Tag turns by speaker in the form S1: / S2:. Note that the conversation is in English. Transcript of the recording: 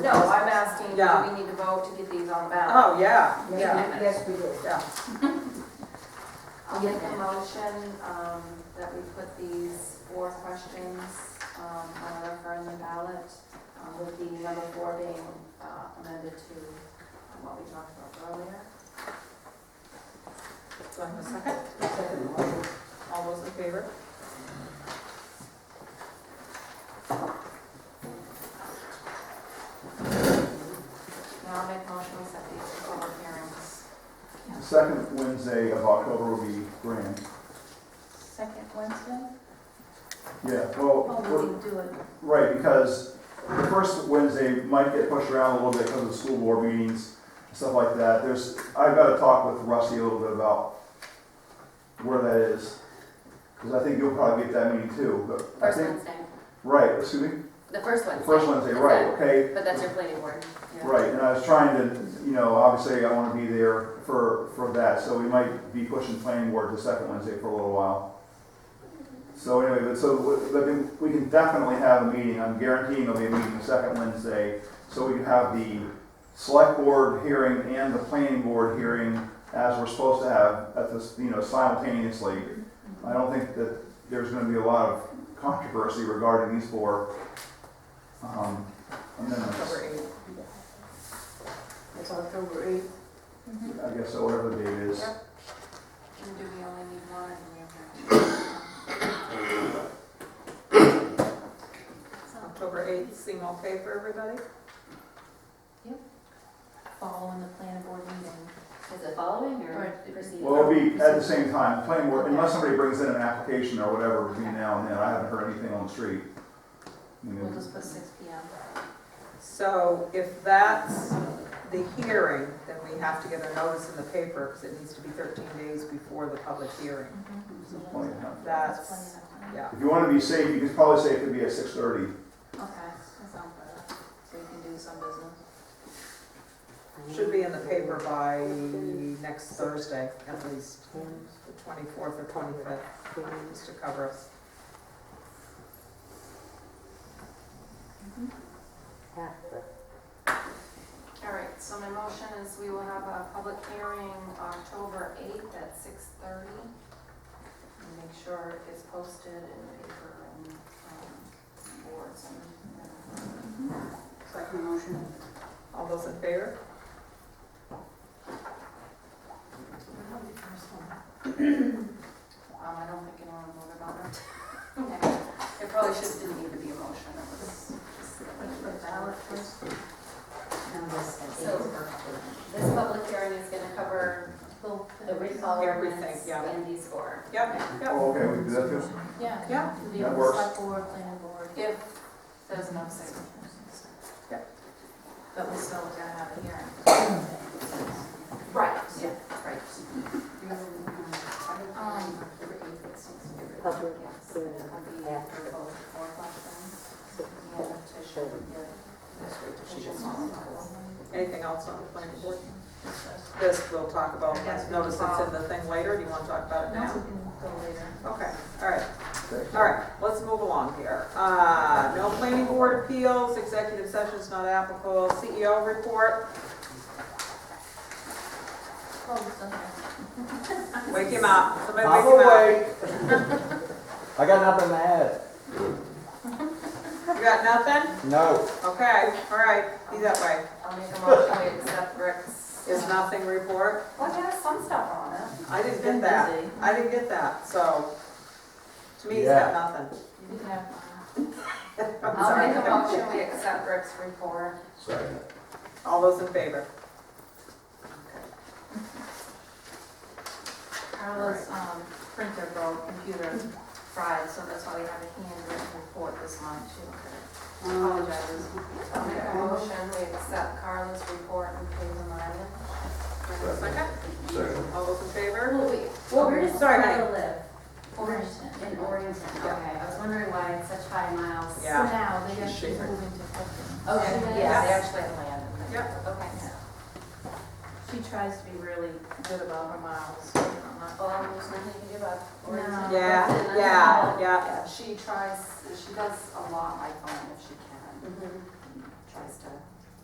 S1: Yeah.
S2: do we need to vote to get these on the ballot?
S1: Oh, yeah, yeah,
S3: Yes, we do.
S1: yeah.
S2: I'll make a motion, um, that we put these four questions, um, on a referendum ballot, um, with the number four being, uh, amended to um, what we talked about earlier.
S1: Do I have a second? All those in favor?
S2: Now I'll make a motion to set these for public hearings.
S4: The second Wednesday of October will be grand.
S5: Second Wednesday?
S4: Yeah, well,
S5: Oh, we
S4: we're-
S5: can do it.
S4: right, because the first Wednesday might get pushed around a little bit because of the school board meetings, and stuff like that. There's, I've got to talk with Rusty a little bit about where that is, because I think you'll probably get that meeting too, but I
S2: First
S4: think,
S2: Wednesday,
S4: right, excuse me?
S2: the first
S4: The
S2: Wednesday.
S4: first Wednesday, right, okay,
S2: But that's your planning board. yeah.
S4: Right, and I was trying to, you know, obviously I want to be there for, for that, so we might be pushing planning board to second Wednesday for a little while. So anyway, but so, we- but then we can definitely have a meeting, I'm guaranteeing there'll be a meeting the second Wednesday, so we can have the select board hearing and the planning board hearing as we're supposed to have at this, you know, simultaneously. I don't think that there's gonna be a lot of controversy regarding these four, um, amendments.
S3: October 8th. It's October 8th.
S4: I guess, so whatever the date is.
S2: Yep. And do we only need one, or do we have
S1: October 8th, seem okay for everybody?
S5: Following the planning board meeting.
S2: to? Is it following or
S5: Right.
S2: proceeding?
S4: Well, it'll be at the same time, planning board, unless somebody brings in an application or whatever between now and then, I haven't heard anything on the street. You know,
S5: We'll just put six P M.
S1: So if that's the hearing, then we have to get a notice in the paper because it needs to be 13 days before the public hearing.
S4: it's plenty of time.
S1: That's, yeah.
S4: If you wanna be safe, you could probably say it could be at six thirty.
S2: Okay, that sounds better. So you can do some business.
S1: Should be in the paper by next Thursday at least, the 24th or 25th, just to cover us.
S2: All right, so my motion is we will have a public hearing October 8th at 6:30. And make sure it's posted in the paper and um, boards and.
S3: Second motion.
S1: All those in favor?
S2: Um, I don't think anyone voted on it. Okay. It probably just didn't need to be a motion, it was just. So this public hearing is going to cover the recall
S1: Everything,
S2: ordinance
S1: yeah.
S2: and these four.
S1: Yep, yep,
S4: Oh, okay, we can do that too.
S5: Yeah.
S1: Yeah.
S5: Could be
S4: That
S5: on the
S4: works.
S5: select board, planning board.
S2: If there's enough signatures.
S1: Yeah.
S2: But we still gotta have a hearing. Right, yeah, right. Um,
S6: Public
S2: Yes.
S6: hearing
S2: Yeah, for both, for both of them. And to show the-
S1: anything else on the planning board? This we'll talk about,
S2: Yes, we'll
S1: notice it's in the thing later, do you want to talk about it
S5: No,
S1: now?
S5: we can go later.
S1: Okay, all right.
S4: Okay.
S1: All right, let's move along here. Uh, No planning board appeals, executive session's not applicable, CEO report,
S5: Oh, it's on here.
S1: wake him up, somebody
S7: I'm
S1: wake him
S7: awake. I got nothing to add.
S1: up. You got nothing?
S7: No.
S1: Okay, all right, be that way.
S2: I'll make a motion, we accept Rick's.
S1: Is nothing report?
S2: Well, it has some stuff on it.
S1: I didn't get that, I didn't get that, so to me, he's got nothing.
S5: You can have uh,
S1: I'm
S5: mine.
S2: I'll make a
S1: sorry.
S2: motion, we accept Rick's report.
S1: All those in favor?
S5: Carla's um, printer broke, computer fried, so that's why we have a handwritten report this month too. Apologizes.
S2: I'll make a motion, we accept Carla's report and approve the minutes.
S1: Second? Second. All those in favor?
S8: Well, wait,
S1: Oh,
S8: well, where does
S1: sorry,
S8: Florida live?
S5: Orangetown.
S8: In Oregon, okay, I was wondering why it's such high miles.
S5: So
S1: Yeah,
S5: now they
S1: She's
S5: actually
S1: shaking.
S5: moving to Clifton.
S2: Oh,
S8: Okay,
S2: Yeah, they
S8: yes.
S2: actually have land. in there. Okay.
S5: She tries to be really good about her miles. you know, not-
S2: Well, there's nothing you can do about
S5: No.
S2: Oregon.
S1: yeah, yeah, yeah. Mm-hmm.
S2: Yeah, she tries, she does a lot by phone if she can. Tries to